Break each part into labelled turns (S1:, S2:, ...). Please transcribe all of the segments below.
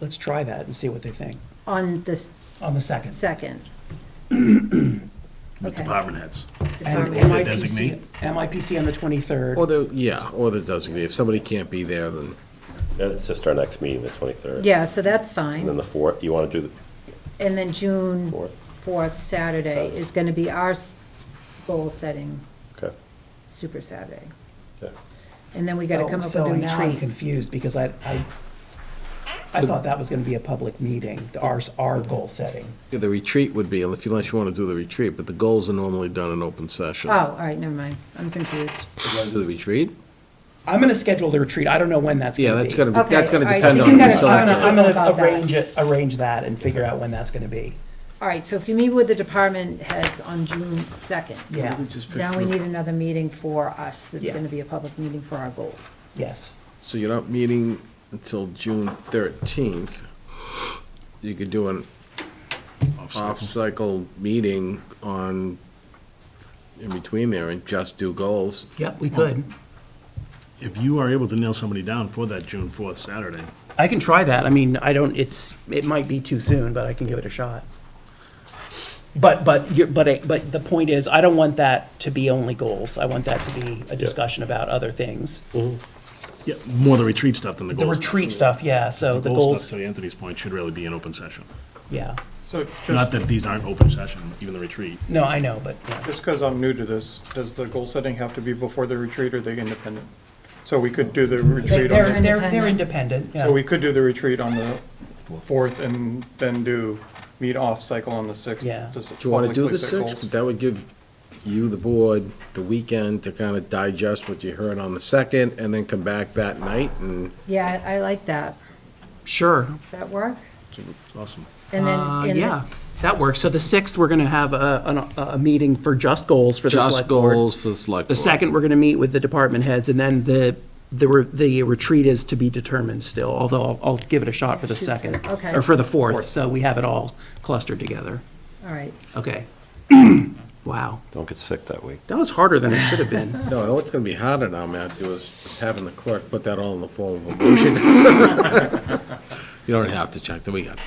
S1: let's try that and see what they think
S2: on the s-
S1: on the second.
S2: second.
S3: with
S2: Okay.
S3: department heads.
S1: And
S2: Department.
S1: MIPC, MIPC on the
S4: Or
S1: 23rd.
S4: the, yeah, or the designee. If somebody can't be there, then
S5: Then it's just our next meeting, the 23rd.
S2: Yeah, so that's
S5: And then
S2: fine.
S5: the 4th, you want to do
S2: And then June
S5: the 4th?
S2: 4th, Saturday, is going to be our s- goal-setting
S5: Okay.
S2: Super Saturday.
S5: Okay.
S2: And then we got to come
S1: Oh,
S2: up with
S1: so
S2: a
S1: now I'm
S2: retreat.
S1: confused because I, I, I thought that was going to be a public meeting, the- ours, our goal setting.
S4: yeah, the retreat would be, if you, unless you want to do the retreat, but the goals are normally done in open session.
S2: Oh, all right, never mind, I'm confused.
S4: You wanna Do the retreat?
S1: I'm going to schedule the retreat. I don't know when that's going to
S4: Yeah,
S1: be.
S4: that's gonna be,
S2: Okay,
S4: that's gonna
S2: all right,
S4: depend
S2: so
S4: on
S2: you
S4: the
S2: gotta talk
S4: select.
S2: to-
S4: board.
S1: I'm going
S2: About
S1: to
S2: that.
S1: arrange it, arrange that and figure out when that's going to be.
S2: All right, so if you meet with the department heads on June 2nd.
S1: Yeah,
S2: Now we need another meeting for us, it's
S1: Yeah.
S2: going to be a public meeting for our goals.
S1: yes.
S4: So you're not meeting until June thirteenth. You could do an off-cycle meeting on, in between there and just do goals.
S1: Yep, we could.
S3: If you are able to nail somebody down for that June fourth Saturday,
S1: I can try that. I mean, I don't, it's, it might be too soon, but I can give it a shot. But, but, you're- but, I- but the point is, I don't want that to be only goals. I want that to be a discussion about other things.
S3: yeah, more the retreat stuff than the
S1: The
S3: goals.
S1: retreat stuff, yeah, so the goals,
S3: stuff, to Anthony's point, should really be an open session.
S1: yeah.
S6: So
S3: Not
S6: just,
S3: that these aren't open session, even the retreat.
S1: No, I know, but, yeah.
S6: just because I'm new to this, does the goal setting have to be before the retreat or are they independent? So we could do the
S1: They-
S6: retreat
S1: they're,
S6: on,
S1: they're, they're independent,
S6: so
S1: yeah,
S6: we could do the retreat on the fourth and then do meet off cycle on the sixth.
S1: Yeah.
S4: Do you want to do the sixth? That would give you, the board, the weekend to kind of digest what you heard on the second, and then come back that night and
S2: Yeah, I I like that.
S1: sure,
S2: Does that work?
S3: Awesome.
S2: And then,
S1: uh,
S2: and
S1: yeah, that works. So the sixth, we're gonna have a, an- a, a meeting for just goals for the
S4: just
S1: select board.
S4: goals for the select
S1: The
S4: board.
S1: second, we're going to meet with the department heads, and then the, the, re- the retreat is to be determined still, although I'll, I'll give it a shot for the second.
S2: okay.
S1: Or for the fourth, so we have it all clustered together.
S2: all right,
S1: Okay. Wow,
S5: Don't get sick that week.
S1: that was harder than it should have been.
S4: No, I know what's going to be harder now, Matthew, is having the clerk put that all in the form of a motion. You don't have to check the weekend.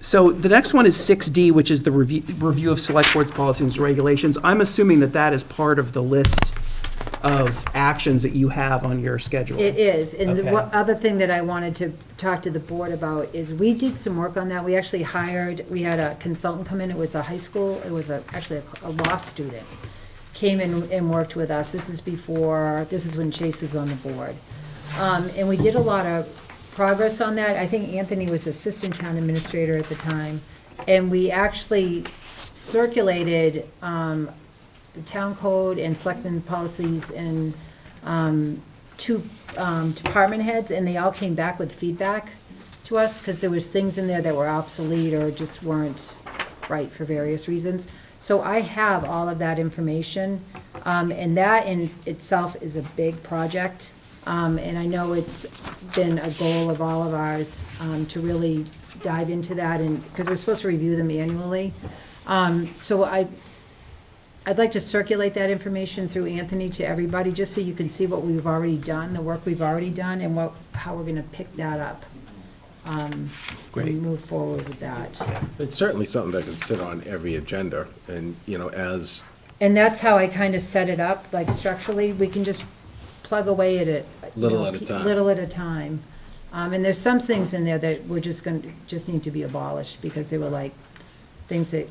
S1: So the next one is 6D, which is the review, review of select board's policies and regulations. I'm assuming that that is part of the list of actions that you have on your schedule.
S2: it is. And the one
S1: Okay.
S2: other thing that I wanted to talk to the board about is we did some work on that. We actually hired, we had a consultant come in, it was a high school, it was a, actually a a law student, came in and worked with us. This is before, this is when Chase was on the board. Um, and we did a lot of progress on that. I think Anthony was assistant town administrator at the time. And we actually circulated, um, the town code and selectmen policies and, um, two, um, department heads, and they all came back with feedback to us, because there was things in there that were obsolete or just weren't right for various reasons. So I have all of that information, um, and that in itself is a big project. Um, and I know it's been a goal of all of ours, um, to really dive into that and, because we're supposed to review them annually. Um, so I, I'd like to circulate that information through Anthony to everybody, just so you can see what we've already done, the work we've already done, and what, how we're gonna pick that up. um,
S1: Great.
S2: And move forward with that.
S4: It's certainly something that can sit on every agenda, and, you know, as,
S2: And that's how I kind of set it up, like structurally, we can just plug away at it. you
S4: Little
S2: know,
S4: at a
S2: pe-
S4: time.
S2: Little at a time. Um, and there's some things in there that we're just gonna, just need to be abolished, because they were like, things that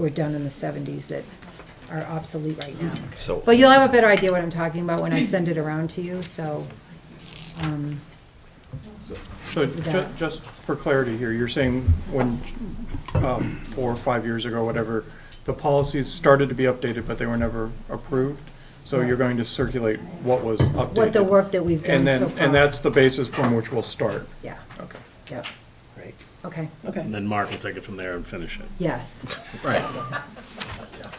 S2: were done in the seventies that are obsolete right now.
S5: So
S2: Well, you'll have a better idea what I'm talking about when I send it around to you, so, um,
S6: So ju-
S2: that.
S6: just for clarity here, you're saying when, um, four or five years ago, whatever, the policies started to be updated, but they were never approved? So you're going to circulate what was updated?
S2: what the work that we've done
S6: And
S2: so
S6: then,
S2: far.
S6: and that's the basis from which we'll start?
S2: Yeah,
S6: Okay.
S2: yeah,
S1: Great.
S2: okay,
S1: Okay.
S3: And then Mark will take it from there and finish it.
S2: yes,
S4: right,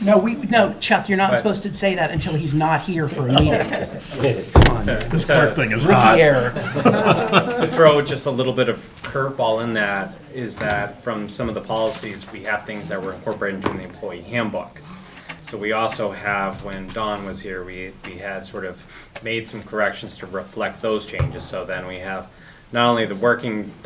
S1: No, we, no, Chuck, you're not
S6: Right.
S1: supposed to say that until he's not here for a meeting. Come on, man.
S3: This clerk thing is
S1: Rookie
S3: hot.
S1: error.
S7: to throw just a little bit of curveball in that is that from some of the policies, we have things that were incorporated into the employee handbook. So we also have, when Don was here, we, we had sort of made some corrections to reflect those changes. So then we have not only the working